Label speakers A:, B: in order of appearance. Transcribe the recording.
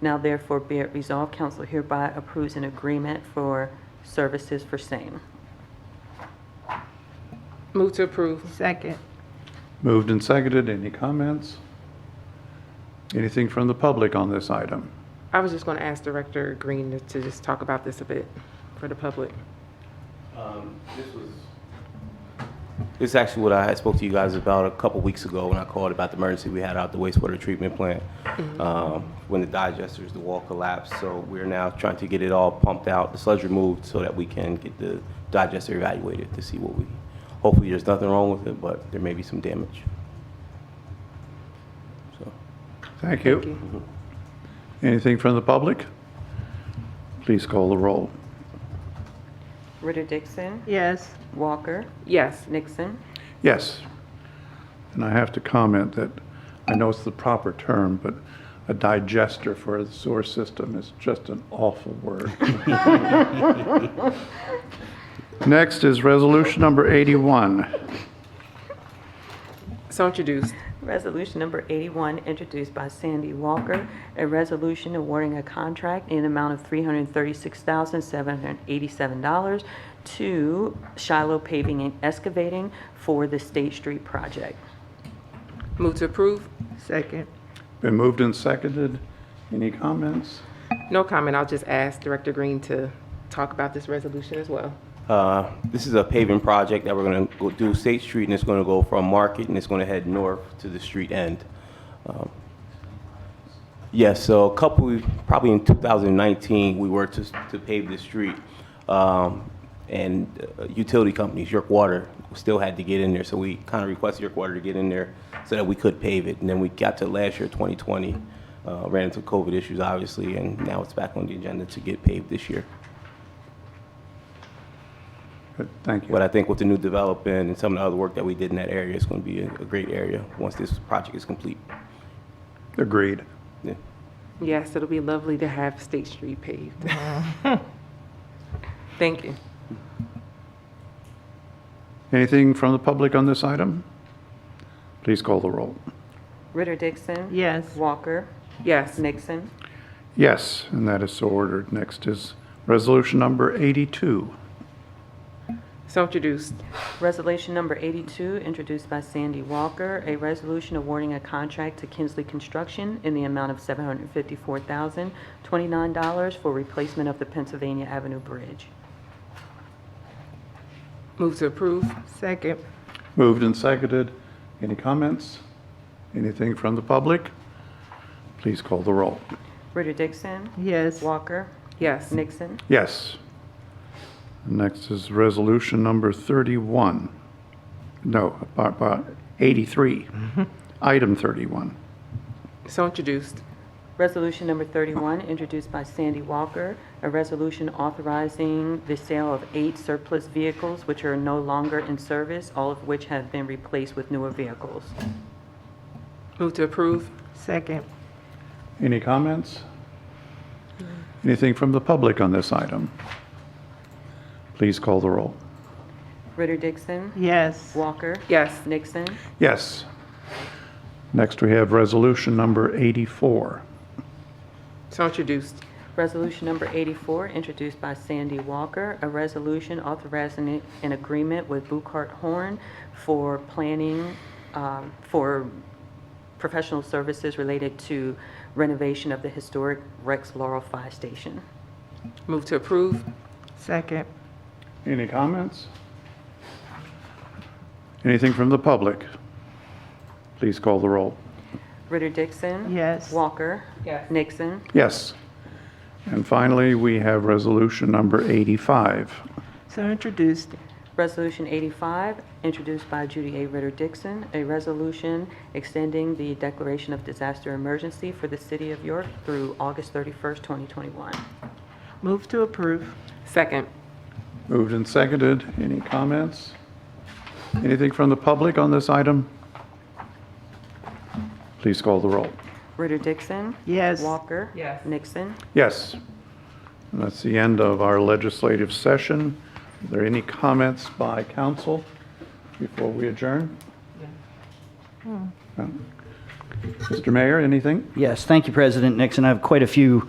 A: Now therefore be it resolved, council hereby approves an agreement for services for same.
B: Move to approve.
C: Second.
D: Moved and seconded. Any comments? Anything from the public on this item?
B: I was just going to ask Director Green to- to just talk about this a bit for the public.
E: Um, This was. This is actually what I had spoke to you guys about a couple weeks ago when I called about the emergency we had out the wastewater treatment plant. um, When the digesters, the wall collapsed, so we're now trying to get it all pumped out, the sludge removed, so that we can get the digester evaluated to see what we, hopefully there's nothing wrong with it, but there may be some damage. So,
D: Thank you. Anything from the public? Please call the roll.
A: Ritter Dixon,
C: Yes.
A: Walker,
B: Yes,
A: Nixon.
D: Yes. And I have to comment that I know it's the proper term, but a digester for a sewer system is just an awful word. Next is resolution number 81.
B: so introduced.
A: Resolution number 81, introduced by Sandy Walker, a resolution awarding a contract in amount of $336,787 to Shiloh Paving and Excavating for the State Street project.
B: Move to approve.
C: Second.
D: Been moved and seconded. Any comments?
B: No comment, I'll just ask Director Green to talk about this resolution as well.
E: Uh, This is a paving project that we're going to do State Street, and it's going to go from Market, and it's going to head north to the street end. Um, Yes, so a couple, probably in 2019, we were to to pave the street, Um, and uh, utility companies, York Water, still had to get in there, so we kind of requested York Water to get in there so that we could pave it, and then we got to last year, 2020, uh, ran into COVID issues, obviously, and now it's back on the agenda to get paved this year.
D: Good, Thank
E: But
D: you.
E: I think with the new development and some of the other work that we did in that area, it's going to be a a great area once this project is complete.
D: Agreed.
E: Yeah.
B: Yes, it'll be lovely to have State Street paved. Thank you.
D: Anything from the public on this item? Please call the roll.
A: Ritter Dixon.
C: Yes.
A: Walker,
B: Yes,
A: Nixon.
D: Yes, and that is so ordered. Next is resolution number 82.
B: so introduced.
A: Resolution number 82, introduced by Sandy Walker, a resolution awarding a contract to Kinsley Construction in the amount of $754,029 for replacement of the Pennsylvania Avenue Bridge.
B: Move to approve.
C: Second.
D: Moved and seconded. Any comments? Anything from the public? Please call the roll.
A: Ritter Dixon.
C: Yes.
A: Walker.
B: Yes,
A: Nixon.
D: Yes. Next is resolution number 31. No, about- about 83. Item 31.
B: so introduced.
A: Resolution number 31, introduced by Sandy Walker, a resolution authorizing the sale of eight surplus vehicles which are no longer in service, all of which have been replaced with newer vehicles.
B: Move to approve.
C: Second.
D: Any comments? Anything from the public on this item? Please call the roll.
A: Ritter Dixon.
C: Yes.
A: Walker.
B: Yes,
A: Nixon.
D: Yes. Next, we have resolution number 84.
B: so introduced.
A: Resolution number 84, introduced by Sandy Walker, a resolution authorizing an agreement with Buchard Horn for planning, um, for professional services related to renovation of the historic Rex Laurel Fire Station.
B: Move to approve.
C: Second.
D: Any comments? Anything from the public? Please call the roll.
A: Ritter Dixon.
C: Yes.
A: Walker.
B: Yes.
A: Nixon.
D: Yes. And finally, we have resolution number 85.
C: So introduced.
A: Resolution 85, introduced by Judy A. Ritter Dixon, a resolution extending the declaration of disaster emergency for the city of York through August 31st, 2021.
C: Move to approve.
B: Second.
D: Moved and seconded. Any comments? Anything from the public on this item? Please call the roll.
A: Ritter Dixon.
C: Yes.
A: Walker.
B: Yes.
A: Nixon.
D: Yes. And that's the end of our legislative session. Are there any comments by council before we adjourn? No. Mr. Mayor, anything?
F: Yes, thank you, President Nixon. I have quite a few